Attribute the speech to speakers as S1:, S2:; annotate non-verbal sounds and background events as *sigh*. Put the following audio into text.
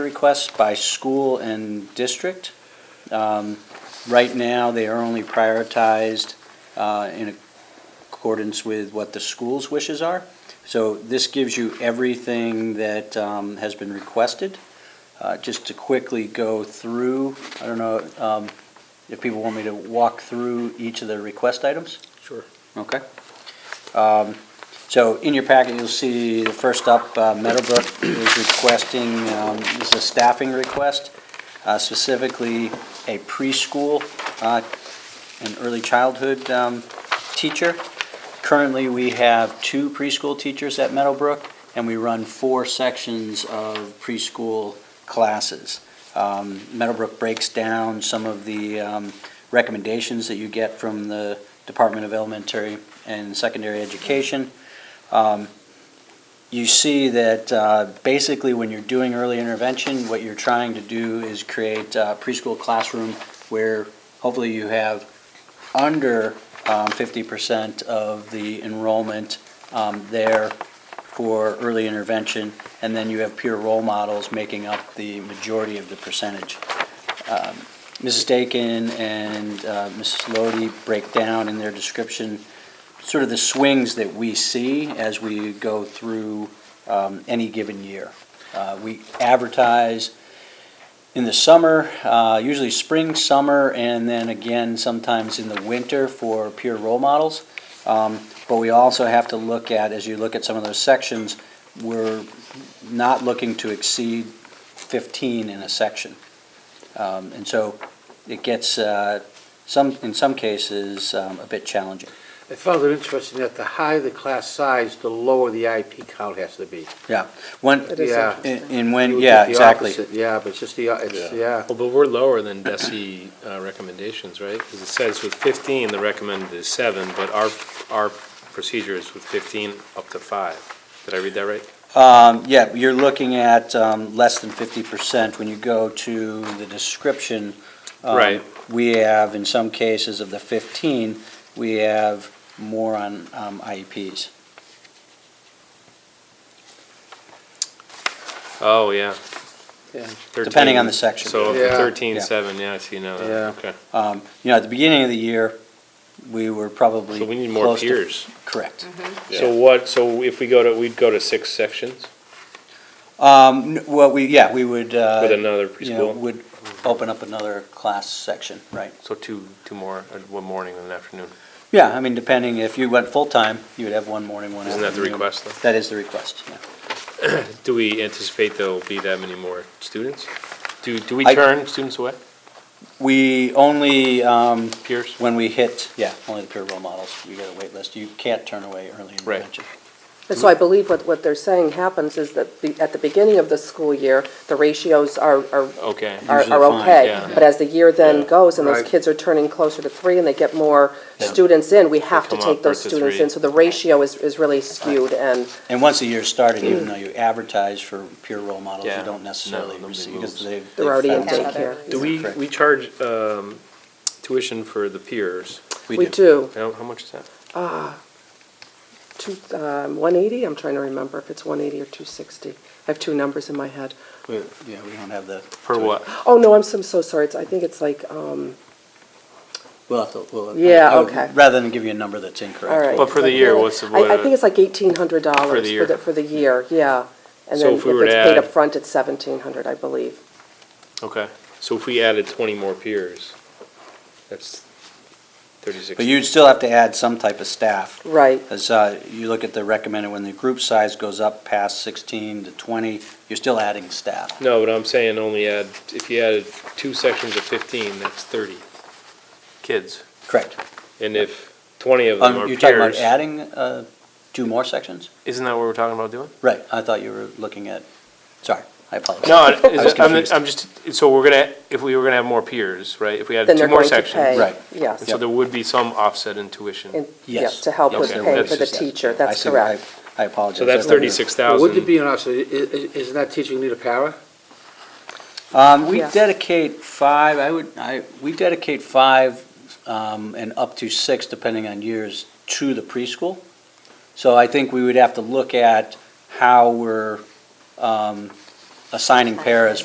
S1: requests by school and district. Um, Right now, they are only prioritized uh, in accordance with what the school's wishes are. So this gives you everything that um, has been requested. Uh, Just to quickly go through, I don't know um, if people want me to walk through each of the request items?
S2: Sure.
S1: Okay. Um, So in your packet, you'll see the first up, uh, Meadowbrook is requesting, um, this is a staffing request, uh, specifically a preschool, uh, an early childhood um, teacher. Currently, we have two preschool teachers at Meadowbrook, and we run four sections of preschool classes. Um, Meadowbrook breaks down some of the um, recommendations that you get from the Department of Elementary and Secondary Education. Um, You see that uh, basically when you're doing early intervention, what you're trying to do is create a preschool classroom where hopefully you have under um, fifty percent of the enrollment um, there for early intervention, and then you have peer role models making up the majority of the percentage. Um, Mrs. Dakin and uh, Mrs. Lodi break down in their description sort of the swings that we see as we go through um, any given year. Uh, We advertise in the summer, uh, usually spring, summer, and then again sometimes in the winter for peer role models. Um, But we also have to look at, as you look at some of those sections, we're not looking to exceed 15 in a section. Um, And so it gets, uh, some, in some cases, um, a bit challenging.
S2: I found it interesting that the higher the class size, the lower the IP count has to be.
S1: Yeah, when,
S3: It is
S2: Yeah.
S1: and
S3: interesting.
S1: and
S2: You
S1: when,
S2: would
S1: yeah,
S2: get the
S1: exactly.
S2: opposite, Yeah, but it's just the, it's, yeah,
S4: Well, but we're lower than DESI uh, recommendations, right? Because it says with 15, the recommended is seven, but our, our procedure is with 15 up to five. Did I read that right?
S1: Um, yeah, you're looking at, um, less than fifty percent when you go to the description. um,
S4: Right.
S1: We have, in some cases of the fifteen, we have more on, um, IEPs.
S4: Oh, yeah.
S2: Yeah.
S4: 13.
S1: Depending on the section.
S4: So
S2: Yeah.
S4: 13,
S1: Yeah.
S4: seven, yeah, I see now that,
S2: Yeah.
S4: okay.
S1: Um, you know, at the beginning of the year, we were probably.
S4: So we need more
S1: close to-
S4: peers.
S1: Correct.
S4: So what, so if we go to, we'd go to six sections
S1: Um, n- well, we, yeah, we would, uh,
S4: with another
S1: you know,
S4: preschool?
S1: would open up another class section, right?
S4: So two, two more, uh, one morning and an afternoon.
S1: Yeah, I mean, depending, if you went full-time, you would have one morning, one
S4: Isn't
S1: afternoon.
S4: that the request, though?
S1: That is the request, yeah.
S4: Do we anticipate there'll be that many more students? Do, do we
S1: I-
S4: turn students away,
S1: We only, um,
S4: peers?
S1: when we hit, yeah, only the peer role models, you get a wait list. You can't turn away early
S4: Right.
S1: intervention.
S3: And so I believe what, what they're saying happens is that be- at the beginning of the school year, the ratios are, are,
S4: Okay.
S3: are
S1: Usually
S3: are
S1: fine,
S3: okay.
S4: yeah.
S3: But as the year then
S4: Yeah.
S3: goes and those
S2: Right.
S3: kids are turning closer to three and they get more
S1: Yeah.
S3: students in, we have to
S4: come
S3: take
S4: up
S3: those
S4: versus
S3: students
S4: three.
S3: in. So the ratio is, is really skewed and,
S1: And once the year's started, even though you advertise for peer role models, you
S4: Yeah.
S1: don't
S4: No,
S1: necessarily
S4: nobody
S1: receive, because
S4: moves.
S1: they've.
S3: They're
S1: they've
S3: already in
S1: found it.
S3: daycare. Daycare.
S4: Do we,
S1: Correct.
S4: we charge um, tuition for the peers?
S3: We do.
S4: How, how much is that?
S3: two, um, one eighty, I'm trying to remember if it's one eighty or two sixty. I have two numbers in my head.
S1: But, Yeah, we don't have the.
S4: Per what?
S3: Oh, no, I'm so, I'm so sorry. It's, I think it's like, um,
S1: We'll have to, we'll.
S3: Yeah,
S1: I would-
S3: okay.
S1: Rather than give you a number that's incorrect.
S3: all right.
S4: But for the year, what's the-
S3: I, I think it's like eighteen hundred dollars.
S4: For the year.
S3: For the year, yeah. And
S4: So
S3: then if
S4: if we were to
S3: it's
S4: add-
S3: paid up front, it's seventeen hundred, I believe.
S4: Okay, so if we added twenty more peers, that's thirty-six.
S1: But you'd still have to add some type of staff.
S3: Right.
S1: As uh, you look at the recommended, when the group size goes up past 16 to 20, you're still adding staff.
S4: No, but I'm saying only add, if you added two sections of fifteen, that's thirty kids.
S1: Correct.
S4: And if twenty of them
S1: Um,
S4: are
S1: You're talking about
S4: peers,
S1: adding uh, two more sections?
S4: isn't that what we're talking about doing?
S1: Right, I thought you were looking at, sorry, I apologize.
S4: *laughs* No, is
S1: was
S4: it- I'm,
S1: confused.
S4: I'm just, so we're gonna, if we were gonna have more peers, right, if we added
S3: Then
S4: two
S3: they're
S4: more
S3: going to
S4: sections.
S3: pay.
S1: Right.
S3: Yes.
S4: And so
S1: Yep.
S4: there would be some offset in tuition.
S3: And-
S1: Yes.
S3: To help with
S4: Okay,
S3: paying
S4: that's
S3: for the
S4: just-
S3: teacher,
S1: I
S3: that's
S1: see, I-
S3: correct.
S1: I apologize.
S4: So that's
S1: I thought you were-
S4: thirty-six
S2: wouldn't it
S4: thousand.
S2: be an option, i- i- isn't that teacher need a para?
S1: Um, we
S3: Yeah.
S1: dedicate five, I would, I, we dedicate five, um, and up to six, depending on years, to the preschool. So I think we would have to look at how we're, um, assigning paras